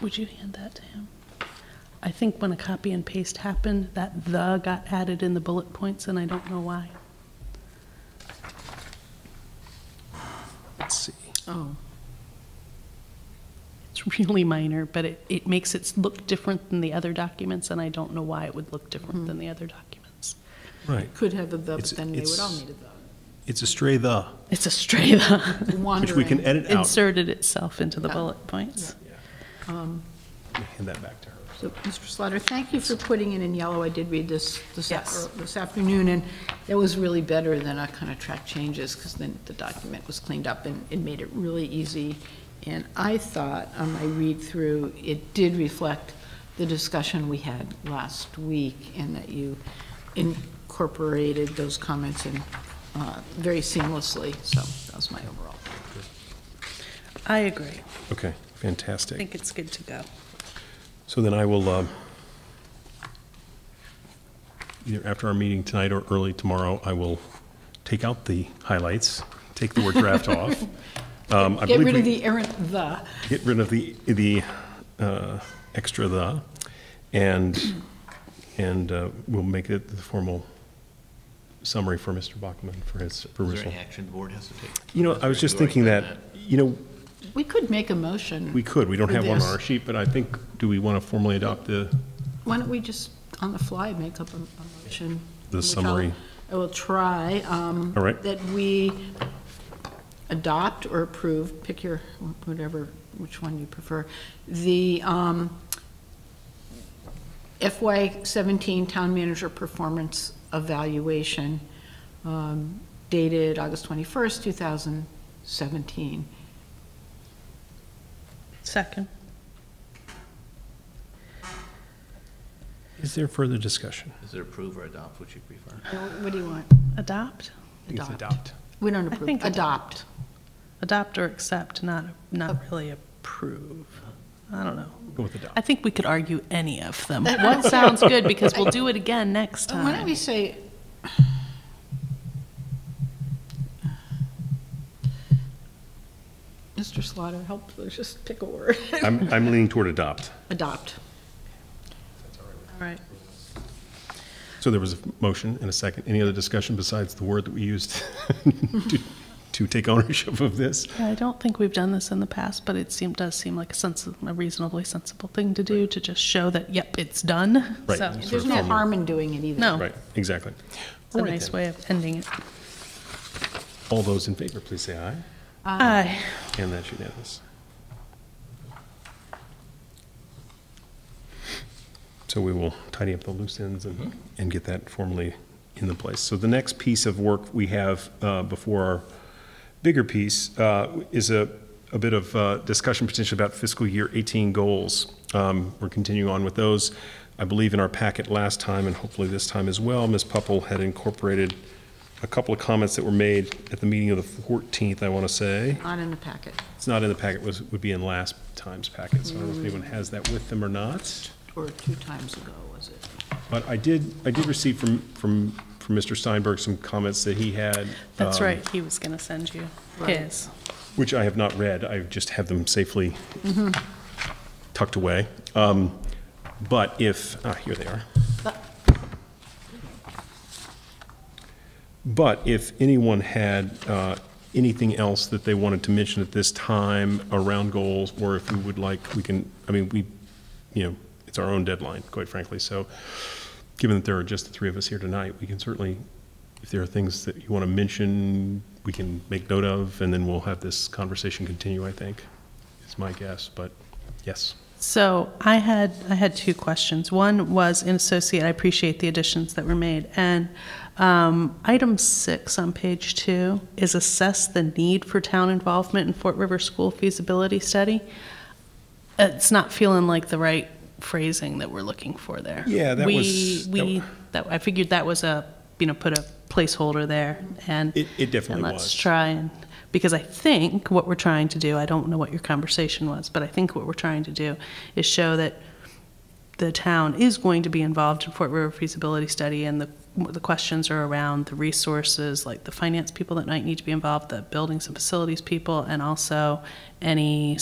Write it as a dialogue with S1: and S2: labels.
S1: Would you hand that to him? I think when a copy and paste happened, that "the" got added in the bullet points, and I don't know why.
S2: Let's see.
S1: Oh. It's really minor, but it, it makes it look different than the other documents, and I don't know why it would look different than the other documents.
S2: Right.
S3: Could have a the, but
S2: It's-
S3: then they would all
S2: it's-
S3: need a
S2: It's a stray the,
S1: It's a stray "the"
S3: the.
S2: which we can
S3: Wandering.
S2: edit out.
S1: inserted itself into the
S3: Yeah.
S1: bullet points.
S2: Hand that back to her.
S3: So, Mr. Slaughter, thank you for putting it in yellow. I did read this this,
S1: Yes.
S3: er, this afternoon, and it was really better than our kind of track changes, because then the document was cleaned up and it made it really easy. And I thought, on my read-through, it did reflect the discussion we had last week, and that you incorporated those comments in uh, very seamlessly, so that was my overall.
S1: I agree.
S2: Okay,
S1: I
S2: fantastic.
S1: think it's good to go.
S2: So then I will, um, either after our meeting tonight or early tomorrow, I will take out the highlights, take the word draft off. Um, I
S3: Get
S2: believe
S3: rid of
S2: we-
S3: the errant "the."
S2: Get rid of the, the uh, extra the, and, and uh, we'll make it the formal summary for Mr. Bachman for his
S4: Is there
S2: perusal.
S4: any action the board has to take?
S2: You know, I was just
S4: We've already
S2: thinking
S4: done
S2: that, you know,
S3: We could make a motion.
S2: we could, we don't
S3: For
S2: have one on
S3: this.
S2: our sheet, but I think, do we want to formally adopt the,
S3: Why don't we just, on the fly, make up a a motion?
S2: The
S3: which I'll-
S2: summary.
S3: I will try. um,
S2: All right.
S3: That we adopt or approve, pick your, whatever, which one you prefer, the um, FY '17 Town Manager Performance Evaluation um, dated August 21st, 2017.
S1: Second.
S2: is there further discussion?
S4: Is it approve or adopt, which you prefer?
S3: Now, What do you want?
S1: Adopt?
S2: I think it's adopt.
S3: We don't
S1: I think
S3: approve, adopt.
S1: Adopt or accept, not, not really approve. I don't know.
S2: Go with adopt.
S1: I think we could argue any of them. What sounds good, because we'll do it again next
S3: Uh, Why don't we
S1: time.
S3: say? Mr. Slaughter, help, let's just pick a word.
S2: I'm, I'm leaning toward adopt.
S3: Adopt.
S1: All right.
S2: So there was a motion and a second. Any other discussion besides the word that we used to, to take ownership of this?
S1: Yeah, I don't think we've done this in the past, but it seemed, does seem like a sense, a reasonably sensible thing to do, to just show that, yep, it's done.
S2: Right.
S1: So,
S3: There's no harm in doing it either.
S1: No,
S2: Right, exactly.
S1: it's a nice way of ending it.
S2: All those in favor, please say aye.
S1: Aye.
S2: And that's unanimous. So we will tidy up the loose ends and, and get that formally in the place. So the next piece of work we have uh, before our bigger piece uh, is a, a bit of uh, discussion potentially about fiscal year 18 goals. Um, We're continuing on with those. I believe in our packet last time, and hopefully this time as well, Ms. Pupple had incorporated a couple of comments that were made at the meeting of the 14th, I want to say.
S3: Not in the packet.
S2: It's not in the packet, was, would be in last time's packet, so I don't know if anyone has that with them or not.
S3: Or two times ago, was it?
S2: But I did, I did receive from, from, from Mr. Steinberg some comments that he had.
S1: That's
S2: um,
S1: right, he was gonna send you
S3: Right.
S1: his.
S2: Which I have not read, I just have them safely tucked away. Um, But if, ah, here they are. But if anyone had uh, anything else that they wanted to mention at this time around goals, or if we would like, we can, I mean, we, you know, it's our own deadline, quite frankly, so given that there are just the three of us here tonight, we can certainly, if there are things that you want to mention, we can make note of, and then we'll have this conversation continue, I think, is my guess, but yes.
S1: So I had, I had two questions. One was in associate, I appreciate the additions that were made. And um, item six on page two is assess the need for town involvement in Fort River School feasibility study. It's not feeling like the right phrasing that we're looking for there.
S2: Yeah, that
S1: We-
S2: was- that-
S1: We, that, I figured that was a, you know, put a placeholder there and.
S2: It- it definitely
S1: And let's
S2: was.
S1: try and, because I think what we're trying to do, I don't know what your conversation was, but I think what we're trying to do is show that the town is going to be involved in Fort River feasibility study, and the, the questions are around the resources, like the finance people that might need to be involved, the buildings and facilities people, and also any